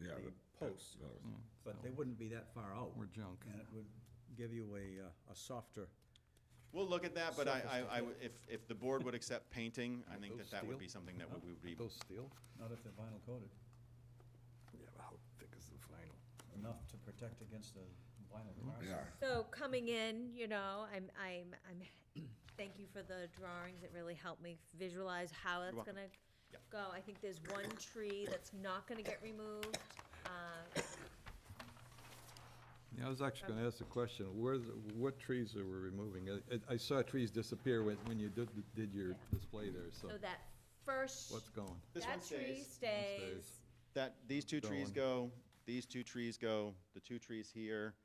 Yeah, the that- posts, that was- Mm. but they wouldn't be that far out. Or junk. And it would give you a, uh, a softer, We'll look at that, but I, I, I Surface would- if, if the board would accept painting, I think Those that that would steel? be something that we would be, Those steel? not if they're vinyl coated, Yeah, but how thick is the vinyl? enough to protect against the vinyl cars. Yeah, So coming in, you know, I'm, I'm, I'm, thank you for the drawings, it really helped me visualize how that's welcome. gonna Yeah. go. I think there's one tree that's not gonna get removed, uh, Yeah, I was actually going to ask the question, where, the- what trees that we're removing? I- I- I saw trees disappear when when you did did your Yeah. display there, so so that first. what's going? This one That tree stays. stays, that, these two trees Going. go, these two trees go, the two trees here,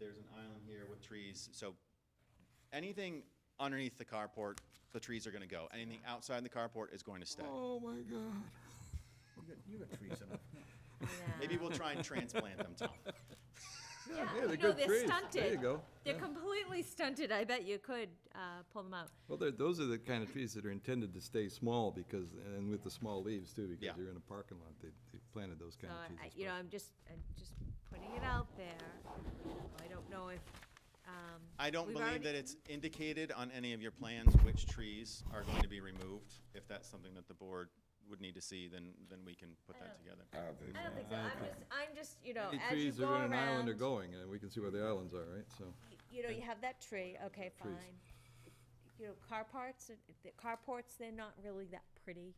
there's an island here with trees, so anything underneath the carport, the trees are gonna go. Anything outside the carport is going to stay. Oh, my God. You got, you got trees enough. yeah. Maybe we'll try and transplant them, Tom. Yeah, yeah, you they're know, good they're trees. There stunted. you go. They're Yeah. completely stunted, I bet you could, uh, pull them out. Well, they're- those are the kind of trees that are intended to stay small because, and with the small leaves too, Yeah. because you're in a parking lot, they they planted those So, kind of trees. I, you know, I'm just, I'm just putting it out there. I don't know if, um. I don't we've believe already- that it's indicated on any of your plans which trees are going to be removed. If that's something that the board would need to see, then, then we can put that together. I don't think I don't so. think so. I'm just, I'm just, you know, especially. Any as you trees that go are in an island are around, going, and we can see where the islands are, right, so. you know, you have that tree, okay, Trees. fine. You know, car parts, uh, the carports, they're not really that pretty.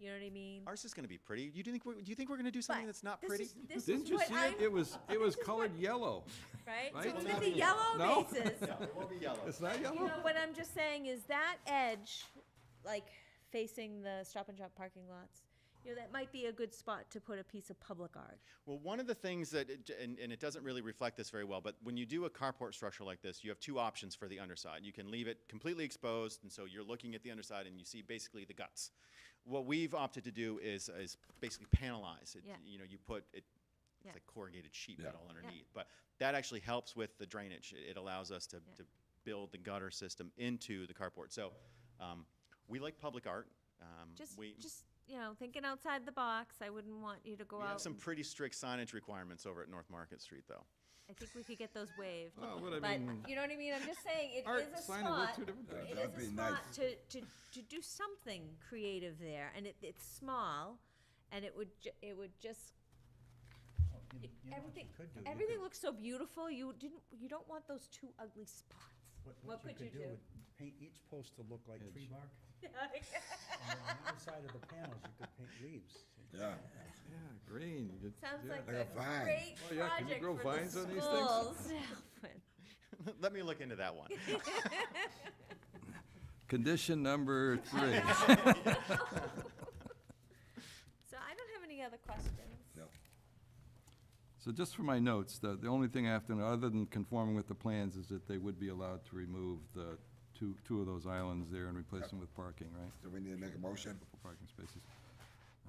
You know what I mean? Ours is gonna be pretty. You do think, we- do you think we're gonna do something But that's not this pretty? is- This Didn't is you what see it? It I'm, was, it was colored yellow. right? right? So it's Well, with the yellow No? bases. No, it won't be yellow. It's not You know, yellow? what I'm just saying is that edge, like facing the Stop and Shop parking lots, you know, that might be a good spot to put a piece of public art. Well, one of the things that, it- and, and it doesn't really reflect this very well, but when you do a carport structure like this, you have two options for the underside. You can leave it completely exposed, and so you're looking at the underside and you see basically the guts. What we've opted to do is, is basically panelize. It, Yeah. You know, you put it, Yeah. it's like corrugated sheet Yeah. metal underneath, but that actually helps with the drainage. It, it allows us to, Yeah. to build the gutter system into the carport. So, um, we like public art. Um, Just, we, just, you know, thinking outside the box, I wouldn't want you to go we have out. some and- pretty strict signage requirements over at North Market Street, though. I think we could get those waived. Oh, Well, what Oh, I But, mean- you know what I mean? I'm just saying, it Art, is a sign are spot. two different things. It That'd is a be spot nice. to, to, to do something creative there, and it, it's small, and it would, ju- it would just Oh, you- you know what you Everything, could do? You everything could- looks so beautiful, you didn't, you don't want those two ugly spots. What could you do? would Paint each post to look like tree Edge. bark. And on the inside of the panels, you could paint leaves. Yeah, Yeah, green. good- Sounds yeah. like Like a a vine. great Oh, yeah, can you project grow for vines on these the things? schools. Alfred. Let me look into that one. Condition number three. So I don't have any other questions. no. So just for my notes, the, the only thing I have to, know, other than conforming with the plans, is that they would be allowed to remove the two, two of those islands there and replace them with parking, right? Do we need to make a motion? Couple Parking spaces.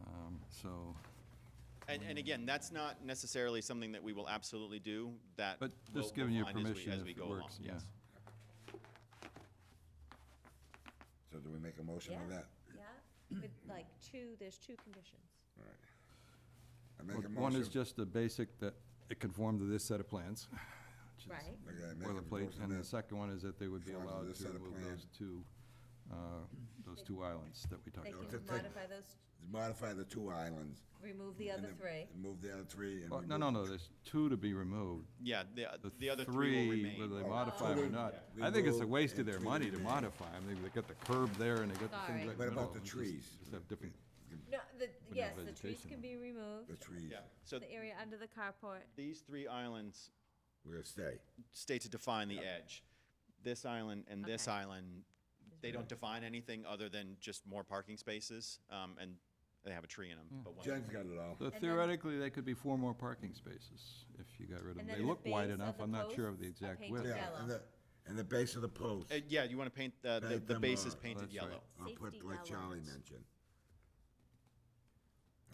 Um, So, And, and again, that's not necessarily something that we will absolutely do, that. but we'll- just giving you we'll find as we- permission as we if it go along, works, yeah. yes. So do we make a motion on Yeah, that? yeah, with like two, there's two conditions. All right. I make a One is motion. just the basic, that it conformed to this set of plans. which is Right. Okay, I make a Boilerplate, motion and the that- second one is that they would be Conforms to allowed this to set of remove plan. those two, uh, those two islands that we talked They about. Okay. can modify those, Modify the two islands. remove the other and three. then Move the other three and. Well, no, no, remove- no, there's two to be removed. Yeah, the, uh, The the other three will Whether they remain. modify them or Oh. not. Yeah. I think it's a Remove waste of and their three money to remaining. modify them. They- They got the curb there and they got the Sorry. things like. What no, about the just- trees? Just have different, No, the, no yes, the trees vegetation can on be The removed, trees. Yeah, so the area under the carport. these three islands We're gonna stay. stay to define the edge. This island and this Okay. island, they don't define anything other than just more parking spaces, um, and they have a tree in Hmm. them, but one. Jen's got it all. So then- theoretically, they could be four more parking spaces if you got rid of them. And They then the look wide base of enough. the I'm not sure of the posts are exact painted width. Yeah, and the, and the base of the post. Uh, yeah, you wanna paint, the, the, Paint the them, base is uh, painted That's right. yellow. I'll put Safety like Charlie elements. mentioned.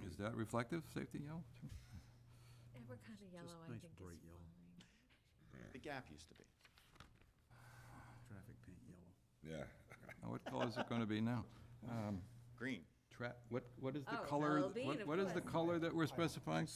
Is that reflective, safety yellow? Ever kind of yellow, I nice think is bright yellow. fine. The gap used to be. Traffic paint yellow. Yeah. Now, what color is it going to be now? Um, Green. Tra, what, what is the Oh, color? well, being, what- of What is the course. color that we're specifying?